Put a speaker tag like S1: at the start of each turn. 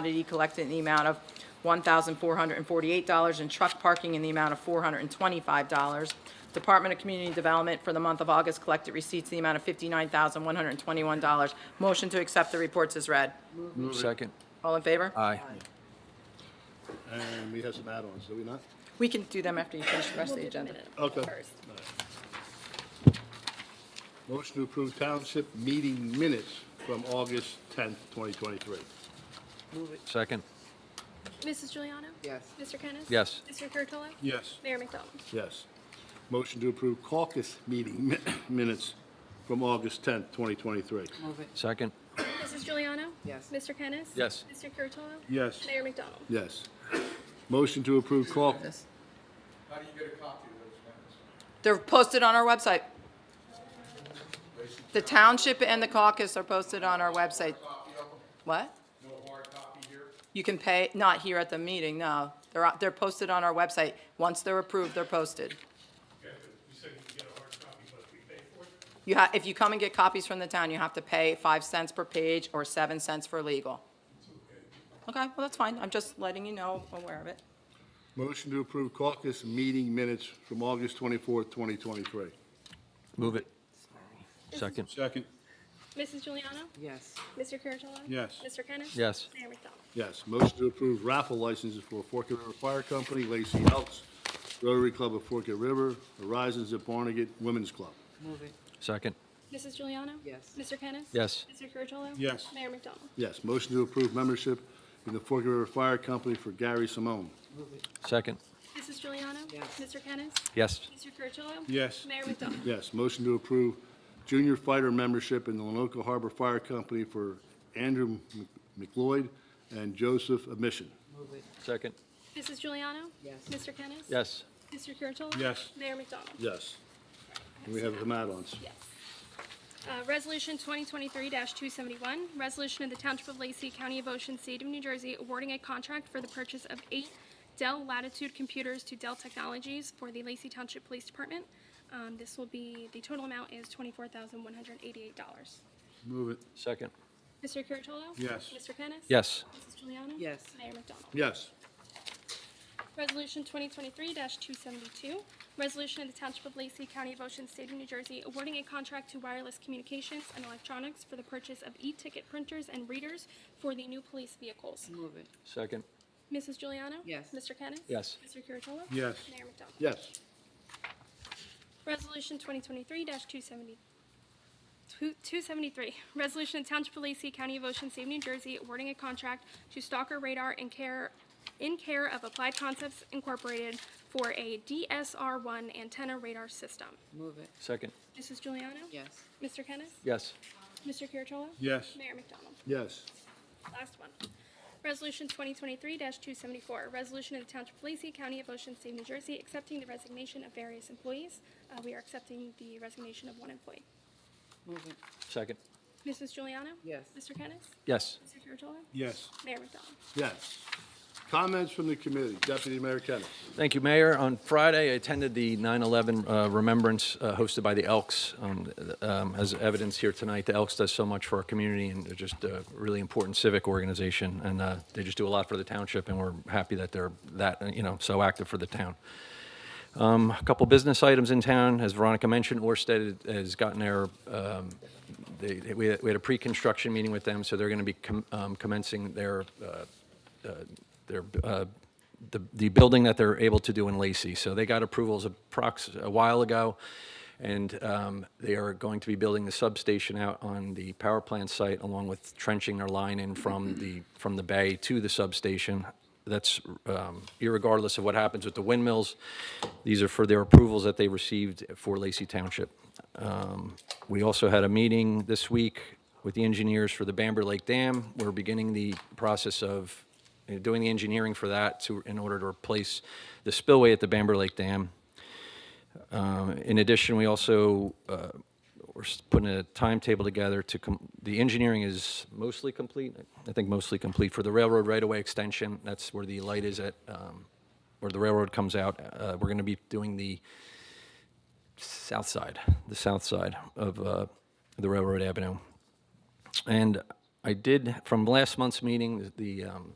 S1: commodity collected in the amount of $1,448 and truck parking in the amount of $425. Department of Community Development for the month of August collected receipts in the amount of $59,121. Motion to accept the reports is read.
S2: Second.
S1: All in favor?
S2: Aye.
S3: And we have some add-ons, do we not?
S1: We can do them after you finish the rest of the agenda.
S3: Okay. Motion to approve township meeting minutes from August 10th, 2023.
S2: Second.
S4: Mrs. Juliano?
S5: Yes.
S4: Mr. Kennis?
S2: Yes.
S4: Mr. Curatolo?
S3: Yes.
S4: Mayor McDonald?
S3: Yes. Motion to approve caucus meeting mi- minutes from August 10th, 2023.
S5: Move it.
S2: Second.
S4: Mrs. Juliano?
S5: Yes.
S4: Mr. Kennis?
S2: Yes.
S4: Mr. Curatolo?
S3: Yes.
S4: Mayor McDonald?
S3: Yes. Motion to approve caucus,
S5: Yes.
S6: How do you get a copy of those minutes?
S1: They're posted on our website. The township and the caucus are posted on our website.
S6: Copy of them?
S1: What?
S6: No hard copy here?
S1: You can pay, not here at the meeting, no. They're, out- they're posted on our website. Once they're approved, they're posted.
S7: Okay, but you said you get a hard copy, but we pay for it?
S1: You ha, if you come and get copies from the town, you have to pay five cents per page or seven cents for legal. Okay, well, that's fine. I'm just letting you know, aware of it.
S3: motion to approve caucus meeting minutes from August 24th, 2023.
S2: Move it. Second.
S3: Second.
S4: Mrs. Juliano?
S5: Yes.
S4: Mr. Curatolo?
S3: Yes.
S4: Mr. Kennis?
S2: Yes.
S4: Mayor McDonald?
S3: Yes. Motion to approve raffle licenses for Forked River Fire Company, Lacey Elks, Rotary Club of Forked River, Horizons at Barnegat Women's Club.
S5: Move it.
S2: Second.
S4: Mrs. Juliano?
S5: Yes.
S4: Mr. Kennis?
S2: Yes.
S4: Mr. Curatolo?
S3: Yes.
S4: Mayor McDonald?
S3: Yes. Motion to approve membership in the Forked River Fire Company for Gary Simone.
S5: Move it.
S2: Second.
S4: Mrs. Juliano?
S5: Yes.
S4: Mr. Kennis?
S2: Yes.
S4: Mr. Curatolo?
S3: Yes.
S4: Mayor McDonald?
S3: Yes. Motion to approve junior fighter membership in the Lenoka Harbor Fire Company for Andrew Mc- McLeod and Joseph Admission.
S5: Move it.
S2: Second.
S4: Mrs. Juliano?
S5: Yes.
S4: Mr. Kennis?
S2: Yes.
S4: Mr. Curatolo?
S3: Yes.
S4: Mayor McDonald?
S3: Yes. And we have some add-ons.
S4: Yes. Uh, Resolution 2023-271, resolution of the Township of Lacey, County of Ocean, State of New Jersey, awarding a contract for the purchase of eight Dell Latitude computers to Dell Technologies for the Lacey Township Police Department. Um, This will be, the total amount is $24,188.
S3: Move it.
S2: Second.
S4: Mr. Curatolo?
S3: Yes.
S4: Mr. Kennis?
S2: Yes.
S4: Mrs. Juliana?
S5: Yes.
S4: Mayor McDonald?
S3: Yes.
S4: Resolution 2023-272, resolution of the Township of Lacey, County of Ocean, State of New Jersey, awarding a contract to Wireless Communications and Electronics for the purchase of e-ticket printers and readers for the new police vehicles.
S5: Move it.
S2: Second.
S4: Mrs. Juliana?
S5: Yes.
S4: Mr. Kennis?
S2: Yes.
S4: Mr. Curatolo?
S3: Yes.
S4: Mayor McDonald?
S3: Yes.
S4: Resolution 2023-270, 273, resolution of Township of Lacey, County of Ocean, State of New Jersey, awarding a contract to Stalker Radar in care, in care of Applied Concepts Incorporated for a DSR-1 antenna radar system.
S5: Move it.
S2: Second.
S4: Mrs. Juliano?
S5: Yes.
S4: Mr. Kennis?
S2: Yes.
S4: Mr. Curatolo?
S3: Yes.
S4: Mayor McDonald?
S3: Yes.
S4: Last one. Resolution 2023-274, resolution of the Township of Lacey, County of Ocean, State of New Jersey, accepting the resignation of various employees. Uh, We are accepting the resignation of one employee.
S5: Move it.
S2: Second.
S4: Mrs. Juliana?
S5: Yes.
S4: Mr. Kennis?
S2: Yes.
S4: Mr. Curatolo?
S3: Yes.
S4: Mayor McDonald?
S3: Yes. Comments from the committee. Deputy Mayor Kennas.
S2: Thank you, Mayor. On Friday, I attended the 9/11 uh, Remembrance uh, hosted by the Elks. Um, um, As evidence here tonight, the Elks does so much for our community, and they're just a really important civic organization, and uh, they just do a lot for the township, and we're happy that they're that, uh, you know, so active for the town. Um, A couple business items in town, as Veronica mentioned, Orsted has gotten their um, they, they- we had we had a pre-construction meeting with them, so they're going to be com- um, commencing their, uh, uh, their, uh, the, the building that they're able to do in Lacey. So they got approvals approx, a while ago, and um, they are going to be building the substation out on the power plant site, along with trenching their line in from the, from the bay to the substation. That's um, irregardless of what happens with the windmills. These are for their approvals that they received for Lacey Township. Um, We also had a meeting this week with the engineers for the Bamber Lake Dam. We're beginning the process of uh, doing the engineering for that to, in order to replace the spillway at the Bamber Lake Dam. Um, In addition, we also, uh, we're s- putting a timetable together to, com- the engineering is mostly complete, I think mostly complete, for the railroad right-of-way extension. That's where the light is at, um, where the railroad comes out. Uh, We're going to be doing the south side, the south side of uh, the Railroad Avenue. And I did, from last month's meeting, the um,